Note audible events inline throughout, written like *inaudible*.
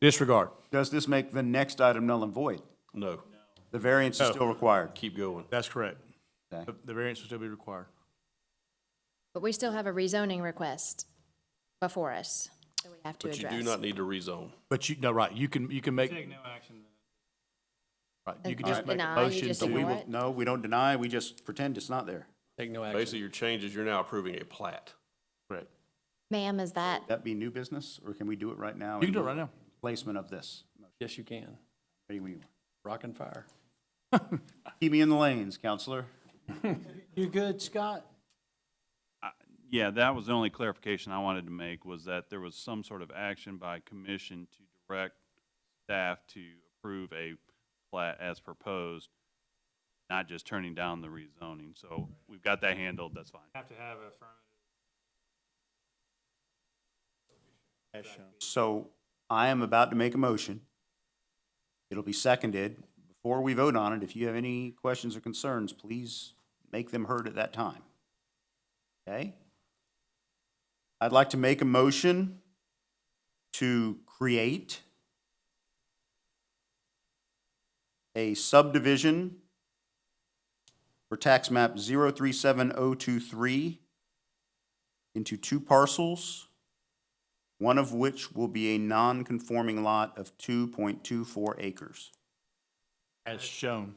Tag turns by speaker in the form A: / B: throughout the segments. A: Disregard.
B: Does this make the next item null and void?
A: No.
B: The variance is still required.
A: Keep going.
C: That's correct.
B: Okay.
C: The- The variance will still be required.
D: But we still have a rezoning request before us that we have to
A: But you
D: address.
A: do not need to rezone.
C: But you, no, right, you can, you can make,
E: Take no action.
C: right, you can
D: Just
C: just make a
D: deny, you
C: motion
D: just
C: to.
B: We
D: ignore
B: will,
D: What?
B: no, we don't deny, we just pretend it's not there.
F: Take no action.
A: Basically, your change is you're now approving a plat.
C: Correct.
D: Ma'am, is that,
B: That be new business, or can we do it right now?
C: You can do it
B: in
C: right now.
B: Placement of this.
F: Yes, you can.
B: Ready when you are.
F: Rock and fire.
B: Keep me in the lanes, counselor.
F: You good, Scott?
G: Yeah, that was the only clarification I wanted to make, was that there was some sort of action by commission to direct staff to approve a plat as proposed, not just turning down the rezoning. So we've got that handled, that's fine.
E: Have to have a affirmative.
B: So I am about to make a motion. It'll be seconded. Before we vote on it, if you have any questions or concerns, please make them heard at that time. Okay? I'd like to make a motion to create a subdivision for tax map 037023 into two parcels one of which will be a non-conforming lot of 2.24 acres,
C: As shown.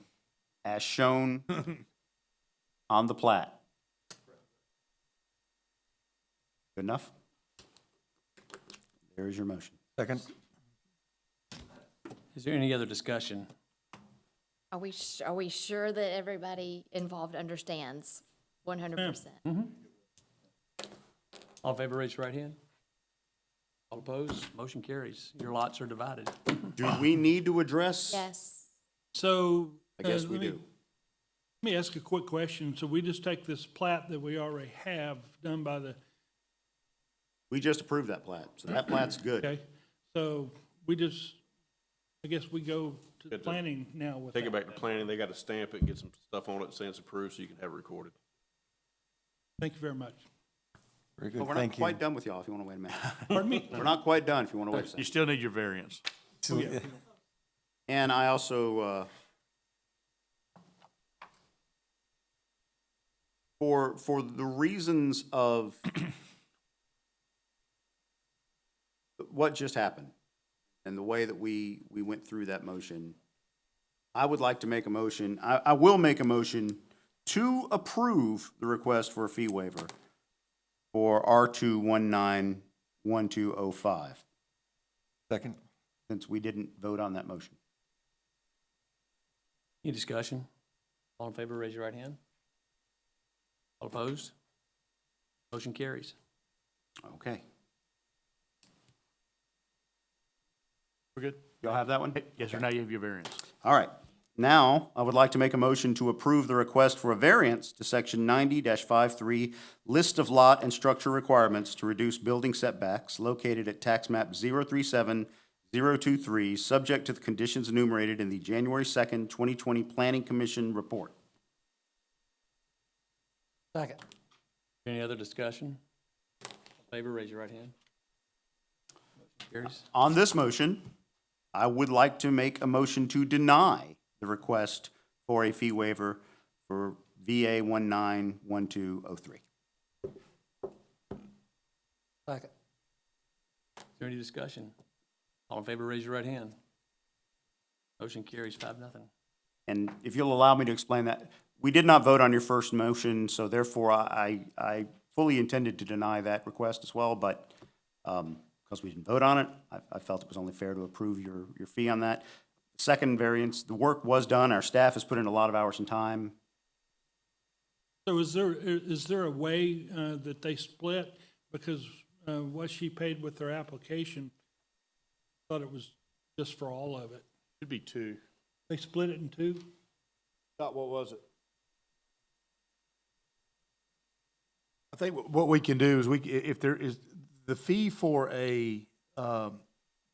H: *laughs*
B: as shown on the plat. Good enough? There is your motion.
F: Is there any other discussion?
D: are we, s- are we sure that everybody involved understands one hundred percent?
F: All in favor, raise your right hand. All opposed, motion carries. Your lots are divided.
B: Do we need to address?
D: Yes.
I: So.
B: I guess
I: uh,
B: we
I: let me-
B: do.
I: Let me ask a quick question. So we just take this plat that we already have done by the,
B: We just approved that plat, so that plat's good.
I: okay? So we just, I guess we go to the
A: Good to-
I: planning now with
A: Take it
I: that.
A: back to planning, they gotta stamp it, and get some stuff on it, saying it's approved, so you can have it recorded.
I: Thank you very much.
H: Very
B: But
H: good,
B: we're not
H: thank you.
B: quite done with y'all, if you want to wait a
H: *laughs*
B: minute.
I: Pardon me?
B: We're not quite done, if you want to wait a
C: You
B: second.
C: still need your variance.
H: So, uh,
B: And I also, uh, for, for the reasons of *clears throat* what just happened and the way that we, we went through that motion, I would like to make a motion, I, I will make a motion to approve the request for a fee waiver for R two one nine one two oh five,
H: Second,
B: since we didn't vote on that motion.
F: Any discussion? All in favor, raise your right hand. All opposed, motion carries.
B: Okay.
C: We're good?
B: Y'all have that one?
C: Yes, sir, now you have your variance.
B: All right. Now, I would like to make a motion to approve the request for a variance to section ninety 53 list of lot and structure requirements to reduce building setbacks located at tax map 037-023, subject to the conditions enumerated in the January second, twenty twenty Planning Commission report.
F: Second. Any other discussion? All in favor, raise your right hand. Motion Carries.
B: On this motion, I would like to make a motion to deny the request for a fee waiver for VA one nine one two oh three.
F: Second. Is there any discussion? All in favor, raise your right hand. Motion carries five, nothing.
B: And if you'll allow me to explain that, we did not vote on your first motion, so therefore I, I fully intended to deny that request as well, but because we didn't vote on it, I, I felt it was only fair to approve your, your fee on that. Second variance, the work was done, our staff has put in a lot of hours and time.
I: So is there, i- is there a way uh, that they split? Because uh, what she paid with her application, thought it was just for all of it.
C: Should be two.
I: They split it in two?
J: Scott, what was it?
C: I think wh- what we can do is we, c- if there is, the fee for a, um,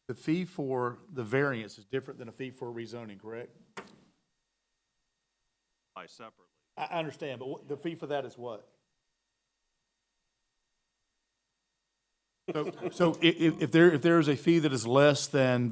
C: the fee for the variance is different than a fee for rezoning, correct?
G: By separately.
C: I, I understand, but what, the fee for that is what? So, so i- i- if there, if there is a fee that is less than